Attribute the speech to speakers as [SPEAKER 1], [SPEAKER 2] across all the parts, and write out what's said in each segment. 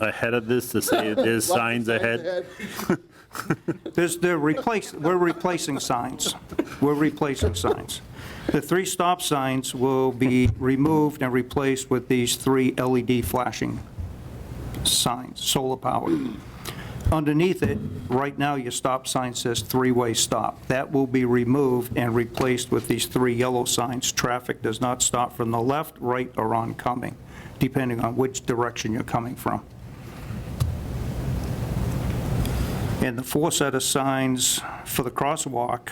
[SPEAKER 1] ahead of this to say there's signs ahead?
[SPEAKER 2] There's, they're replace, we're replacing signs. We're replacing signs. The three stop signs will be removed and replaced with these three LED flashing signs, solar powered. Underneath it, right now, your stop sign says three-way stop. That will be removed and replaced with these three yellow signs. Traffic does not stop from the left, right, or oncoming, depending on which direction you're coming from. And the four set of signs for the crosswalk,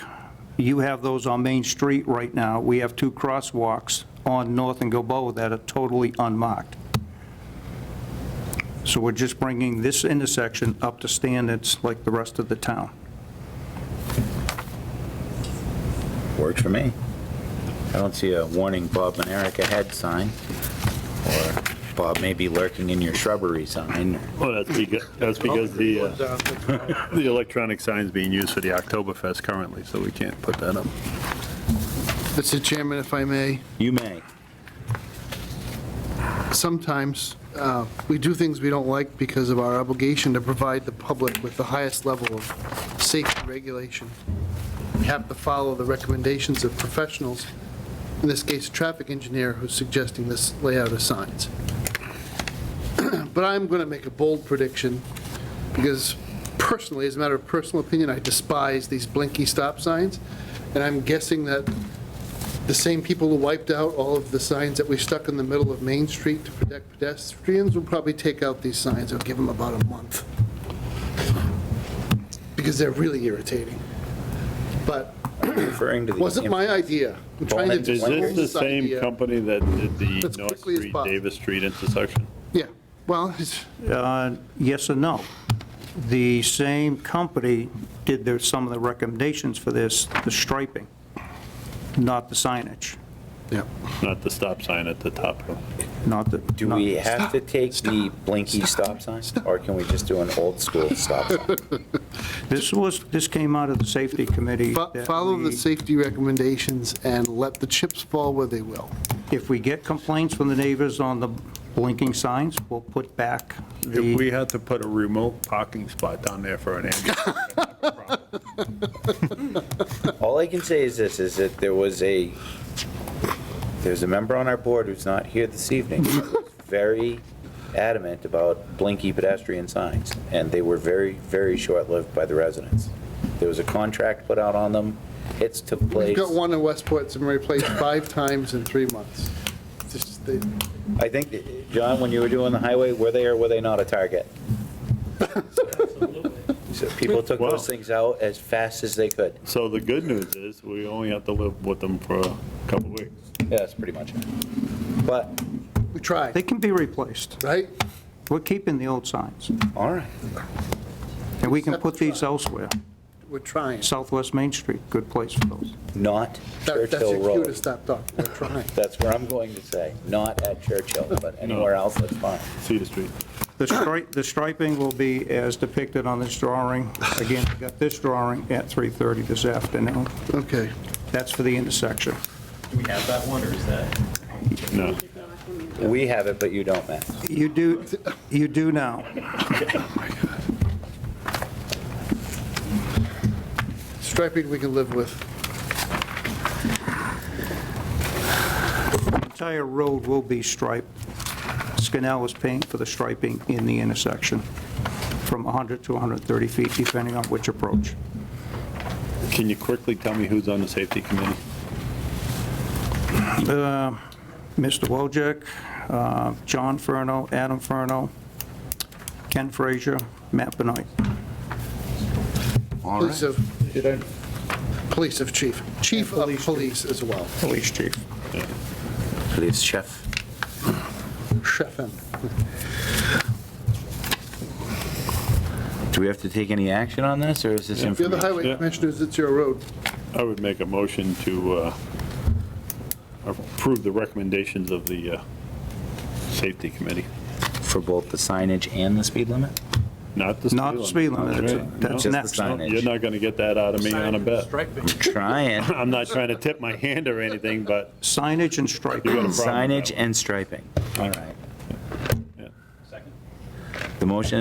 [SPEAKER 2] you have those on Main Street right now. We have two crosswalks on North and Gilboa that are totally unmarked. So we're just bringing this intersection up to standards like the rest of the town.
[SPEAKER 3] Works for me. I don't see a warning Bob and Eric ahead sign, or Bob may be lurking in your shrubbery sign.
[SPEAKER 1] Well, Oh, that's because, that's because the, uh, the electronic sign's being used for the Oktoberfest currently, so we can't put that up.
[SPEAKER 4] Mr. Chairman, if I may,
[SPEAKER 3] You may.
[SPEAKER 4] sometimes uh, we do things we don't like because of our obligation to provide the public with the highest level of safety regulation. We have to follow the recommendations of professionals, in this case, a traffic engineer who's suggesting this layout of signs. But I'm going to make a bold prediction, because personally, as a matter of personal opinion, I despise these blinky stop signs, and I'm guessing that the same people who wiped out all of the signs that we stuck in the middle of Main Street to protect pedestrians will probably take out these signs. It'll give them about a month. Because they're really irritating. But
[SPEAKER 3] Referring to the.
[SPEAKER 4] wasn't my idea. I'm trying to
[SPEAKER 3] Is
[SPEAKER 1] Is
[SPEAKER 4] dispel
[SPEAKER 1] this the uh,
[SPEAKER 4] this
[SPEAKER 1] same
[SPEAKER 4] idea.
[SPEAKER 1] company that did the
[SPEAKER 4] As
[SPEAKER 1] North
[SPEAKER 4] quickly as
[SPEAKER 1] Street,
[SPEAKER 4] possible.
[SPEAKER 1] Davis Street intersection?
[SPEAKER 4] Yeah, well, it's,
[SPEAKER 2] Uh, Yes and no. The same company did their, some of the recommendations for this, the striping, not the signage,
[SPEAKER 4] yeah.
[SPEAKER 1] Not the stop sign at the top hill.
[SPEAKER 2] not the.
[SPEAKER 3] Do
[SPEAKER 2] not-
[SPEAKER 3] we have to take the blinky stop sign, or can we just do an old school stop sign?
[SPEAKER 2] This was, this came out of the safety committee.
[SPEAKER 4] Fo-
[SPEAKER 2] that
[SPEAKER 4] Follow the
[SPEAKER 2] we-
[SPEAKER 4] safety recommendations and let the chips fall where they will.
[SPEAKER 2] If we get complaints from the neighbors on the blinking signs, we'll put back
[SPEAKER 1] If
[SPEAKER 2] the,
[SPEAKER 1] we had to put a remote parking spot down there for an ambulance.
[SPEAKER 3] All I can say is this, is that there was a, there's a member on our board who's not here this evening, who was very adamant about blinky pedestrian signs, and they were very, very short-lived by the residents. There was a contract put out on them, hits took
[SPEAKER 4] We've
[SPEAKER 3] place.
[SPEAKER 4] got one in Westport that's been replaced five times in three months. Just, they-
[SPEAKER 3] I think, that- John, when you were doing the highway, were they or were they not a target? So people took
[SPEAKER 1] Wow.
[SPEAKER 3] those things out as fast as they could.
[SPEAKER 1] So the good news is, we only have to live with them for a couple weeks.
[SPEAKER 3] Yeah, that's pretty much it. But,
[SPEAKER 4] We
[SPEAKER 2] they
[SPEAKER 4] tried,
[SPEAKER 2] can be replaced.
[SPEAKER 4] right?
[SPEAKER 2] We're keeping the old signs,
[SPEAKER 3] all right.
[SPEAKER 2] and we can put these elsewhere.
[SPEAKER 4] We're trying.
[SPEAKER 2] Southwest Main Street, good place for those.
[SPEAKER 3] Not
[SPEAKER 4] That- That's
[SPEAKER 3] Churchill
[SPEAKER 4] your cue
[SPEAKER 3] Road.
[SPEAKER 4] to stop talking, we're trying.
[SPEAKER 3] That's where I'm going to say, not at Churchill, but anywhere else, that's fine.
[SPEAKER 1] Cedar Street.
[SPEAKER 2] The stri- the striping will be as depicted on this drawing. Again, we got this drawing at 3:30 this afternoon.
[SPEAKER 4] Okay.
[SPEAKER 2] That's for the intersection.
[SPEAKER 5] Do we have that one, or is that?
[SPEAKER 1] No.
[SPEAKER 3] We have it, but you don't, Matt.
[SPEAKER 2] You do, you do now.
[SPEAKER 4] Striping we can live with.
[SPEAKER 2] The entire road will be striped. Scanell is paying for the striping in the intersection from 100 to 130 feet, depending on which approach.
[SPEAKER 1] Can you quickly tell me who's on the safety committee?
[SPEAKER 2] Uh, Mr. Wojcik, uh, John Furno, Adam Furno, Ken Frazier, Matt Benoit,
[SPEAKER 4] Police of, police of chief, chief of police as well,
[SPEAKER 2] police chief.
[SPEAKER 3] Please, chef.
[SPEAKER 4] chef and.
[SPEAKER 3] Do we have to take any action on this, or is this
[SPEAKER 4] If you're the
[SPEAKER 3] information?
[SPEAKER 4] highway commissioners, it's your road.
[SPEAKER 1] I would make a motion to uh, approve the recommendations of the uh, safety committee,
[SPEAKER 3] For both the signage and the speed limit?
[SPEAKER 1] not the speed
[SPEAKER 2] Not
[SPEAKER 1] limit.
[SPEAKER 2] the speed limit, that's-
[SPEAKER 1] Right.
[SPEAKER 2] that's
[SPEAKER 1] No,
[SPEAKER 2] next.
[SPEAKER 3] Just the signage.
[SPEAKER 1] You're not going to get that out of me on a bet.
[SPEAKER 5] Striping.
[SPEAKER 3] Trying.
[SPEAKER 1] I'm not trying to tip my hand or anything, but
[SPEAKER 2] Signage
[SPEAKER 1] you
[SPEAKER 2] and striping.
[SPEAKER 1] got a problem with that
[SPEAKER 3] Signage
[SPEAKER 1] one.
[SPEAKER 3] and striping. All right.
[SPEAKER 5] Second.
[SPEAKER 3] The motion